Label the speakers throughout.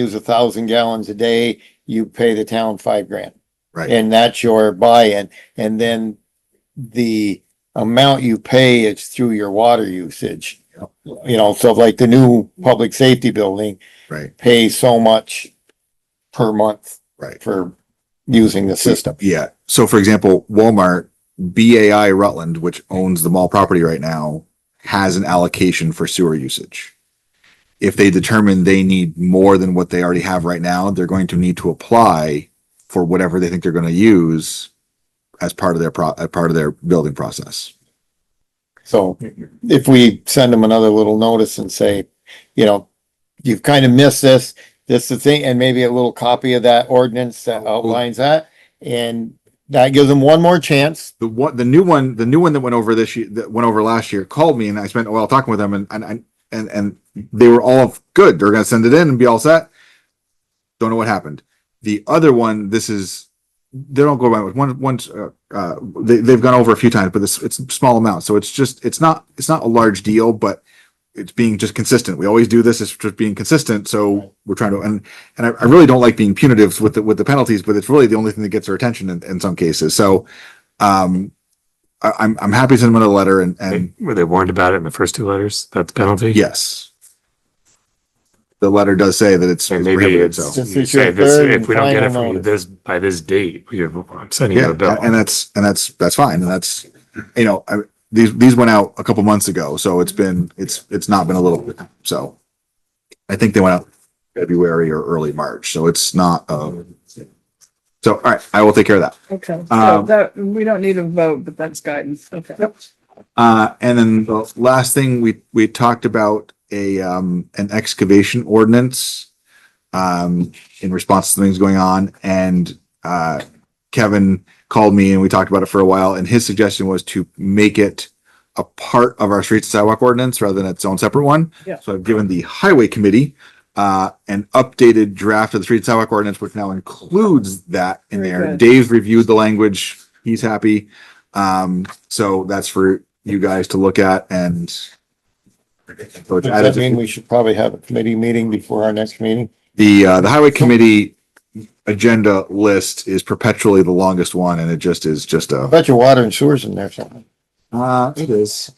Speaker 1: use a thousand gallons a day, you pay the town five grand.
Speaker 2: Right.
Speaker 1: And that's your buy-in. And then the amount you pay is through your water usage.
Speaker 2: Yep.
Speaker 1: You know, so like the new public safety building
Speaker 2: Right,
Speaker 1: pays so much per month
Speaker 2: right.
Speaker 1: for using the system.
Speaker 2: Yeah. So for example, Walmart, BAI Rutland, which owns the mall property right now, has an allocation for sewer usage. If they determine they need more than what they already have right now, they're going to need to apply for whatever they think they're going to use as part of their pro, as part of their building process.
Speaker 1: So if we send them another little notice and say, you know, you've kind of missed this, this the thing, and maybe a little copy of that ordinance
Speaker 2: Mm-hmm.
Speaker 1: that outlines that. And that gives them one more chance.
Speaker 2: the one the new one the new one that went over this year that went over last year called me and I spent a while talking with them and and and and, and they were all good they're gonna send it in and be all set don't know what happened the other one this is they don't go by with one once uh, uh they, they've gone over a few times but this it's small amount so it's just it's not it's not a large deal but it's being just consistent we always do this it's just being consistent so we're trying to and and I, I really don't like being punitive with the with the penalties but it's really the only thing that gets our attention in, in some cases so um, I, I'm, I'm happy to send them a letter and, and
Speaker 3: They- Were they warned about it in the first two letters? That's penalty?
Speaker 2: yes. The letter does say that it's.
Speaker 3: So
Speaker 2: it's
Speaker 3: maybe
Speaker 2: prohibited,
Speaker 3: it's,
Speaker 2: so-
Speaker 1: Since
Speaker 3: you
Speaker 1: it's your
Speaker 3: say this,
Speaker 1: third
Speaker 3: if
Speaker 1: and
Speaker 3: we don't get it
Speaker 1: final
Speaker 3: from you
Speaker 1: notice.
Speaker 3: this, by this date, you, I'm sending you
Speaker 2: Yeah,
Speaker 3: a bill.
Speaker 2: and that's, and that's, that's fine. And that's, you know, I, these, these went out a couple months ago, so it's been, it's, it's not been a little, bit, so. I think they went out February or early March, so it's not, um, so, all right, I will take care of that.
Speaker 4: Okay, so
Speaker 2: Um,
Speaker 4: that, we don't need a vote, but that's guidance, okay.
Speaker 2: Uh, and then the last thing we, we talked about a, um, an excavation ordinance. Um, in response to things going on and, uh, Kevin called me and we talked about it for a while and his suggestion was to make it. A part of our streets and sidewalk ordinance rather than its own separate one.
Speaker 4: Yeah.
Speaker 2: So I've given the highway committee, uh, an updated draft of the street and sidewalk ordinance, which now includes that in
Speaker 4: Very
Speaker 2: there.
Speaker 4: good.
Speaker 2: Dave's reviewed the language. He's happy. Um, so that's for you guys to look at and. So it's
Speaker 1: Does that
Speaker 2: added,
Speaker 1: mean we should probably have a committee meeting before our next meeting?
Speaker 2: the, uh, the highway committee agenda list is perpetually the longest one and it just is just
Speaker 1: I
Speaker 2: a,
Speaker 1: bet your water and sewers in there something.
Speaker 2: uh, it is.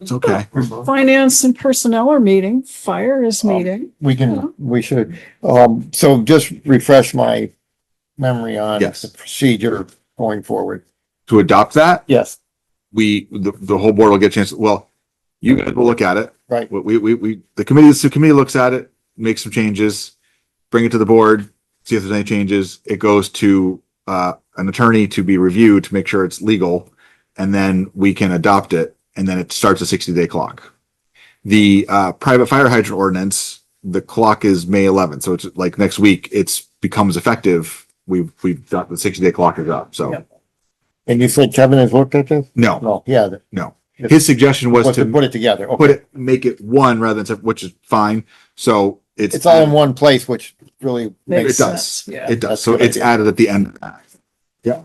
Speaker 2: It's okay.
Speaker 4: Finance and personnel are meeting, fire is
Speaker 2: Um,
Speaker 4: meeting,
Speaker 1: We
Speaker 4: Yeah.
Speaker 1: can, we should, um, so just refresh my memory on
Speaker 2: Yes.
Speaker 1: the procedure going forward.
Speaker 2: To adopt that,
Speaker 1: Yes,
Speaker 2: we, the, the whole board will get a chance, well, you guys will look at it.
Speaker 1: Right.
Speaker 2: We, we, we, the committee, the committee looks at it, makes some changes, bring it to the board, see if there's any changes. It goes to, uh, an attorney to be reviewed to make sure it's legal. And then we can adopt it and then it starts a sixty day clock. The, uh, private fire hydrant ordinance, the clock is May eleventh, so it's like next week, it's becomes effective. We've, we've got the sixty day clock is up, so.
Speaker 4: Yep.
Speaker 1: and you said Kevin has looked at this?
Speaker 2: No,
Speaker 1: No, yeah, the-
Speaker 2: his suggestion was
Speaker 1: was
Speaker 2: to
Speaker 1: to put it together.
Speaker 2: put
Speaker 1: Okay,
Speaker 2: it, make it one rather than, separate, which is fine. So it's.
Speaker 1: it's all in one place, which really
Speaker 2: It
Speaker 1: makes,
Speaker 4: Makes-
Speaker 2: does,
Speaker 4: sense, yeah.
Speaker 2: it does.
Speaker 1: That's
Speaker 2: So
Speaker 1: good
Speaker 2: it's
Speaker 1: idea.
Speaker 2: added at the end. of that. Yeah.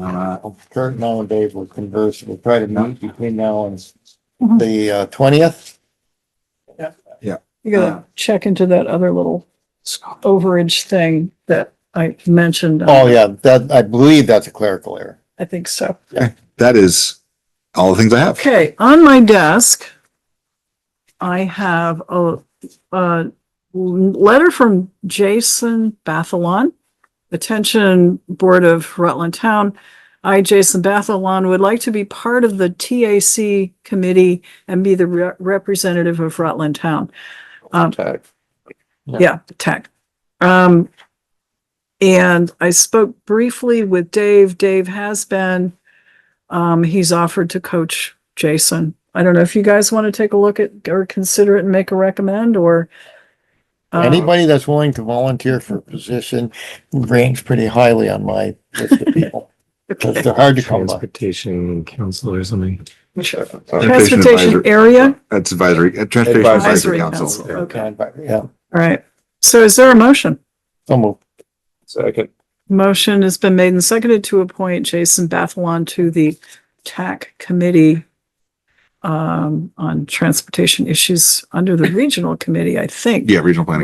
Speaker 2: Uh,
Speaker 1: Kurt and I and Dave will converse, we'll try to meet between now and
Speaker 4: Mhm.
Speaker 1: the uh, twentieth.
Speaker 4: you
Speaker 2: uh,
Speaker 4: gotta check into that other little overage thing that I mentioned. um,
Speaker 1: Oh, yeah, that, I believe that's a clerical error.
Speaker 4: I think so.
Speaker 2: that is all the things I have.
Speaker 4: Okay, on my desk, I have a, a letter from Jason Bathalon. Attention Board of Rutland Town. I, Jason Bathalon, would like to be part of the TAC committee and be the re- representative of Rutland Town. Um,
Speaker 1: Yeah.
Speaker 4: yeah, tech. Um, and I spoke briefly with Dave. Dave has been, um, he's offered to coach Jason. I don't know if you guys want to take a look at or consider it and make a recommend or. um,
Speaker 1: Anybody that's willing to volunteer for a position ranks pretty highly on my list of people, because
Speaker 4: okay.
Speaker 1: they're hard to come by.
Speaker 3: Transportation council or something.
Speaker 4: Transportation
Speaker 2: Advisory-
Speaker 4: area.
Speaker 2: That's advisory, uh, transportation advisory
Speaker 4: Advisory
Speaker 2: council.
Speaker 4: Council. Okay.
Speaker 1: Yeah,
Speaker 4: All right. So is there a motion?
Speaker 1: so moved.
Speaker 3: Second.
Speaker 4: Motion has been made and seconded to appoint Jason Bathalon to the TAC committee. um, on transportation issues under the regional committee, I think.
Speaker 2: Yeah, regional planning.